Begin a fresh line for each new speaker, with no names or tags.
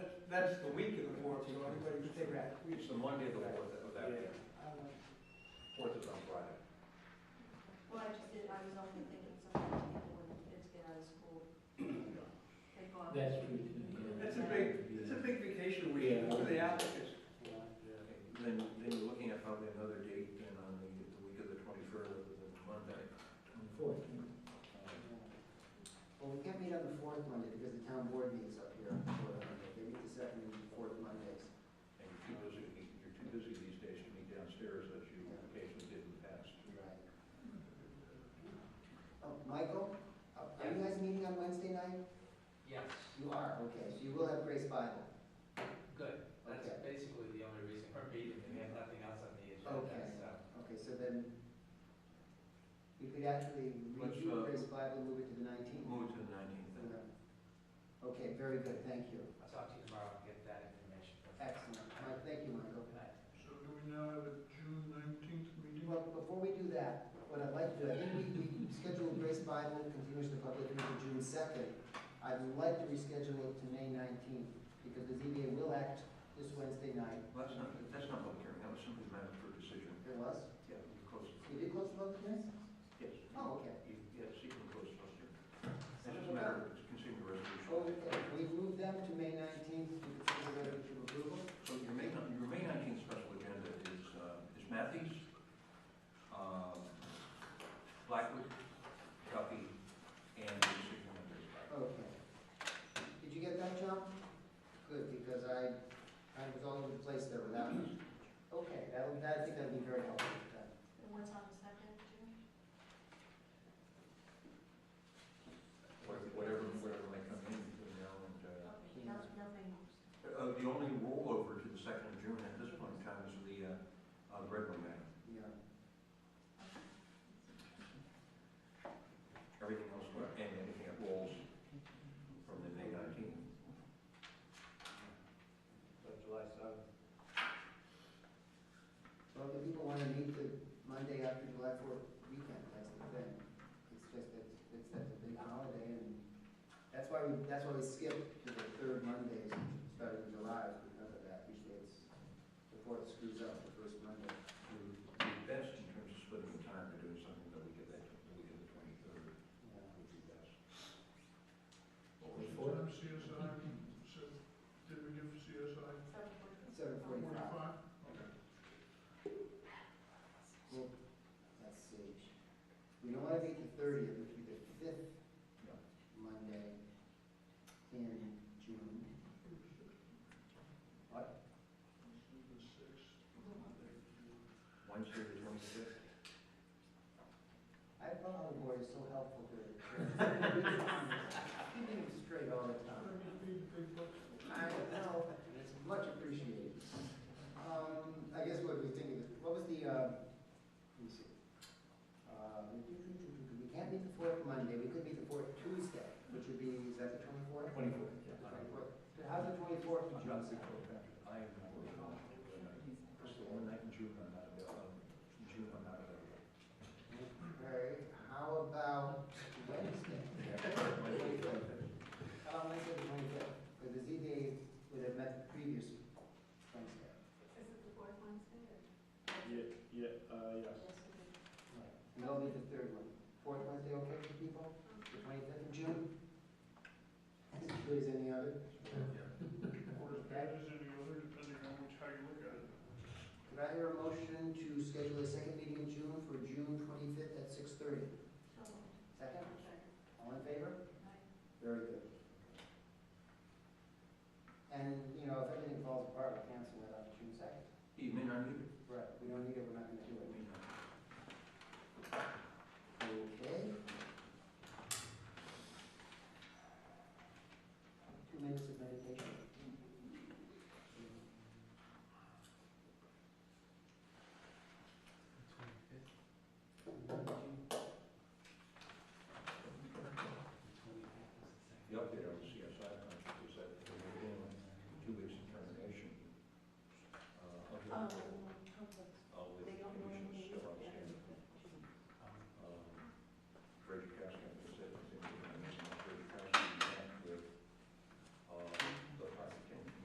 that's the week of the fourth, you know, everybody can take that.
It's the Monday of the fourth of that week. Fourth is on Friday.
Well, I just did, I was only thinking sometimes people, when kids get out of school, they go out.
That's true, too.
That's a big, it's a big vacation week
Yeah.
for the applicants.
Okay, Then, then you're looking at probably another date than on the, the week of the twenty-first, the Monday.
Twenty-fourth.
Well, we can't meet on the fourth Monday because the town board meets up here on the fourth Monday. They meet the second and fourth Mondays.
And you're too busy, you're too busy these days to meet downstairs as you occasionally did in the past.
Right. Oh, Michael, are are you guys meeting on Wednesday night?
Yes,
You are, okay, so you will have Grace Bible.
good. That's
Okay.
basically the only reason for meeting, we have nothing else on the agenda,
Okay.
so.
Okay, so then we could actually
Let's,
review
uh,
Grace Bible, move it to the nineteenth.
Move to the nineteenth.
Mm-hmm.
Okay, very good, thank you.
I'll talk to you tomorrow and get that information.
Excellent. Mike, thank you, Michael.
Good night.
So do we now have a June nineteenth meeting?
Well, before we do that, what I'd like to do, I think we, we scheduled Grace Bible continues the public hearing for June second. I'd like to reschedule it to May nineteenth, because the ZBA will act this Wednesday night.
Well, that's not, that's not public hearing, that was simply a matter for decision.
It was?
Yeah, you close it.
You did close the public hearing?
Yes.
Oh, okay.
You- Yes, you can close it, It's just
Oh,
a matter of considering the resolution.
Okay, we moved them to May nineteenth, to consider whether to approval.
So your May, your May nineteenth special agenda is, uh, is Matthews, um, Blackwood, Guppy, and the decision on Grace Bible.
Okay. Did you get that, John? Good, because I, I was all over the place there with that one. Okay, that'll, that, I think that'd be very helpful.
And what's on the second, June?
Whatever- Whatever, whatever might come in between now and, uh,
Okay, no- nothing.
Uh, The only rollover to the second of June at this point in time is the uh, uh, Red Wing matter.
Yeah.
Everything else, will- and anything that rolls from the May 19th.
July seventh.
Well, the people want to meet the Monday after July fourth weekend, that's the thing. It's just that, it's that a big holiday and that's why we, that's why we skip to the third Mondays starting in July is because of that. Usually it's the fourth screws up the first Monday.
We're Best in terms of splitting the time to doing something that we get that, that we get the 23rd,
Yeah.
would be best.
Four.
CSI, so, did we give CSI
Seven forty.
Seven forty-five.
forty-five? Okay.
Well, let's see. We don't want to meet the thirtieth, which would be the fifth
Yeah.
Monday in June. What?
So the sixth,
Wednesday, the 25th.
I thought our board is so helpful to. Keeping him straight all the
I
time.
think we need big bucks.
I know, it's much appreciated. Um, I guess what we think of, what was the, uh, let me see. Uh, We can't meet the fourth Monday, we could meet the fourth Tuesday, which would be, is that the twenty-fourth?
Twenty-fourth, yeah.
So how's the twenty-fourth of June?
I am not working on it. It's the one night in June I'm not available. In June I'm not available.
Okay, how about Wednesday? How about Wednesday the twenty-fifth? Because the ZBA would have met previous Wednesday.
Is it the fourth Wednesday or?
Yeah, yeah, uh, yes.
Yes, it is.
And that'll be the third one. Fourth Wednesday, okay for people? The twenty-fifth of June? As good as any other?
Or as bad as any other, depending on which, how you look at it.
Could I hear a motion to schedule a second meeting in June for June twenty-fifth at six thirty?
So,
Second?
second,
All in favor?
right.
Very good. And, you know, if everything falls apart, we cancel it on June second.
You may not need it.
Right. We don't need it, we're not gonna
Um,
uh, Um, uh,
do